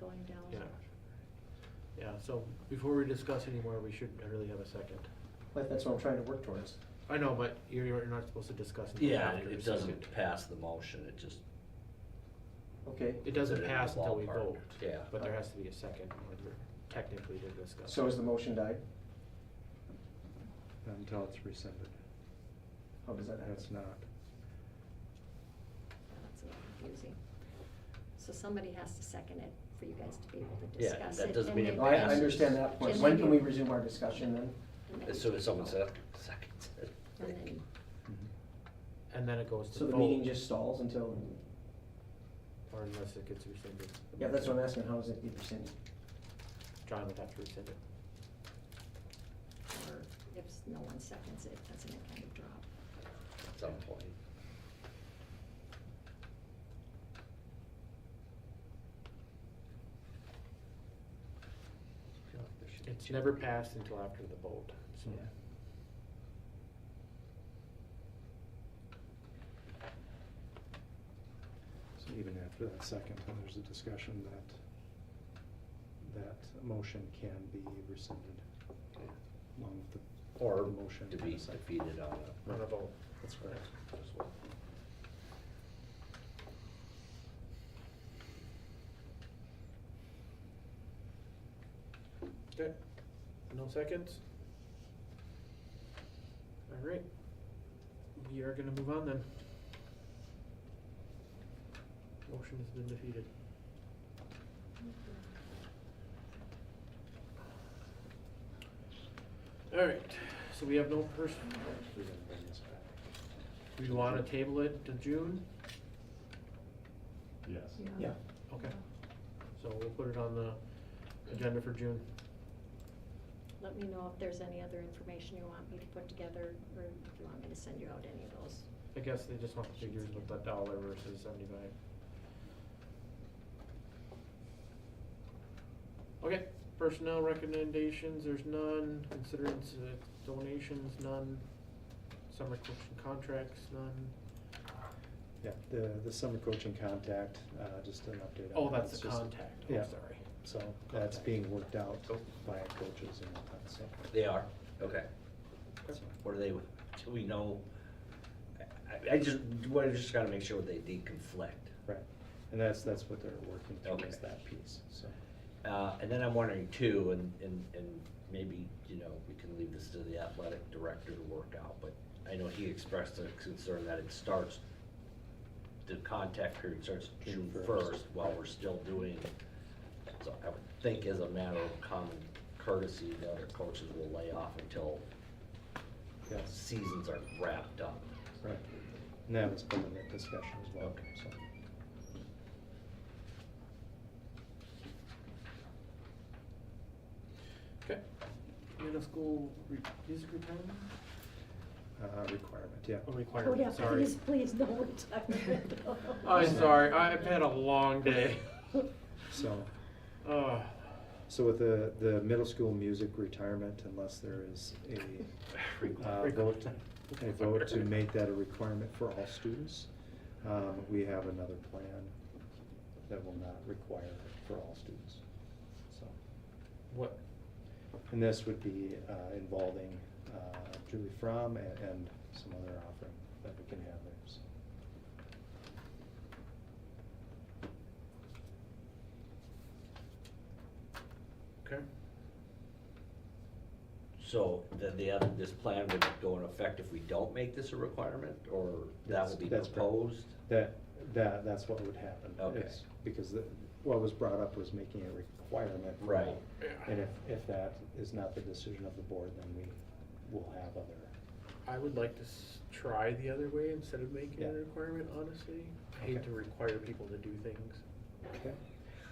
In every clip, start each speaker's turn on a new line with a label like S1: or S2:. S1: going down.
S2: Yeah. Yeah, so before we discuss anymore, we should really have a second.
S3: But that's what I'm trying to work towards.
S2: I know, but you're, you're not supposed to discuss. until
S4: Yeah,
S2: after the
S4: it
S2: second.
S4: doesn't pass the motion, it just.
S3: Okay,
S2: It doesn't
S4: Put it in
S2: pass
S4: the
S2: until we
S4: ballpark.
S2: vote.
S4: Yeah.
S2: But there has to be a second, in order technically to discuss.
S3: so has the motion died?
S5: Not until it's rescinded.
S3: How Oh, does that
S5: That's
S3: happen?
S5: not.
S1: That's a little confusing. So somebody has to second it for you guys to be able to
S4: Yeah,
S1: discuss it.
S4: that doesn't
S1: and
S4: mean it
S1: then-
S3: No, I I
S4: passes.
S3: understand that point.
S1: And
S3: When
S1: then
S3: can
S1: you-
S3: we resume our discussion then?
S1: and then
S4: As
S1: you
S4: soon as
S1: take
S4: someone
S1: vote.
S4: said, seconds it.
S1: And then,
S2: Mm-hmm. And then it goes to
S3: So
S2: vote.
S3: the meeting just stalls until,
S2: Or unless it gets rescinded.
S3: yeah, that's what I'm asking, how does it get rescinded?
S2: John would have to rescind it.
S1: or if s- no one seconds it, doesn't it kind of drop?
S4: At some point. I feel like there should be
S2: It's
S4: two.
S2: never passed until after the vote, so.
S3: Yeah.
S5: So even after that second, time, there's a discussion that, that motion can be rescinded
S4: Yeah.
S5: along with the,
S4: Or
S5: The motion
S4: to
S5: and
S4: be
S5: a second.
S4: defeated on a.
S2: On a vote.
S5: that's correct.
S4: just one.
S2: Okay, no seconds? All right, we are gonna move on then. Motion has been defeated. All right, so we have no person, do you wanna table it to June?
S6: Yes.
S3: Yeah,
S2: Okay, so we'll put it on the agenda for June.
S1: Let me know if there's any other information you want me to put together, or if you want me to send you out any of those.
S2: I guess they just want the figures with the dollar versus seventy-five. Okay, personnel recommendations, there's none, considerance uh, donations, none, summer coaching contracts, none.
S5: Yeah, the, the summer coaching contact, uh, just an update. on
S2: Oh,
S5: that.
S2: that's
S5: It's
S2: the
S5: just-
S2: contact, oh,
S5: Yeah,
S2: sorry.
S5: so that's
S2: Contact.
S5: being worked out
S2: Oh.
S5: by coaches and all that, so.
S4: They are, okay. What are they, do we know? I- I, I just, well, I just gotta make sure they deconflict.
S5: Right, and that's, that's what they're working through is
S4: Okay.
S5: that piece, so.
S4: Uh, and then I'm wondering too, and, and, and maybe, you know, we can leave this to the athletic director to work out, but I know he expressed a concern that it starts, the contact period starts June
S5: June first.
S4: first while we're still doing. So I would think as a matter of common courtesy, the other coaches will lay off until
S5: Yes,
S4: seasons are wrapped up.
S5: right. And that was part of that discussion as well,
S4: Okay.
S5: so.
S2: Okay, middle school re- music retirement?
S5: Uh, requirement, yeah.
S2: Oh,
S1: Oh, yeah,
S2: requirement, sorry.
S1: please, please, no, we're talking about.
S2: I'm sorry, I've had a long day.
S5: So,
S2: Uh,
S5: so with the, the middle school music retirement, unless there is a, uh, vote, a vote to make that a requirement for all students, um, we have another plan that will not require it for all students, so.
S2: What,
S5: And this would be, uh, involving, uh, Julie Fromm and, and some other offering that we can have there, so.
S2: okay,
S4: So then the other, this plan would go in effect if we don't make this a requirement, or that
S5: That's-
S4: will be
S5: that's correct.
S4: proposed?
S5: That, that, that's what would happen.
S4: Okay.
S5: is- Because the, what was brought up was making a requirement. for
S4: Right.
S5: all.
S2: Yeah.
S5: And if, if that is not the decision of the board, then we will have other,
S2: I would like to s- try the other way instead of making it a
S5: Yeah.
S2: requirement, honestly. I hate
S5: Okay.
S2: to require people to do things.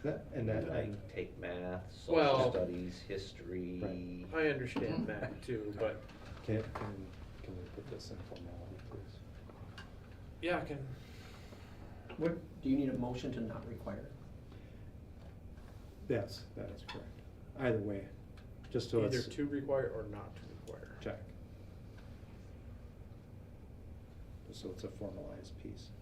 S5: That- and that, and,
S4: Like take math,
S2: Well-
S4: social studies, history.
S2: I understand that too, but
S5: can, can, can we put this in formality, please?
S2: yeah, I can,
S3: what, do you need a motion to not require? it?
S5: Yes, that is correct. Either way, just so
S2: either
S5: it's
S2: to require or not to require.
S5: check. Just so it's a formalized piece.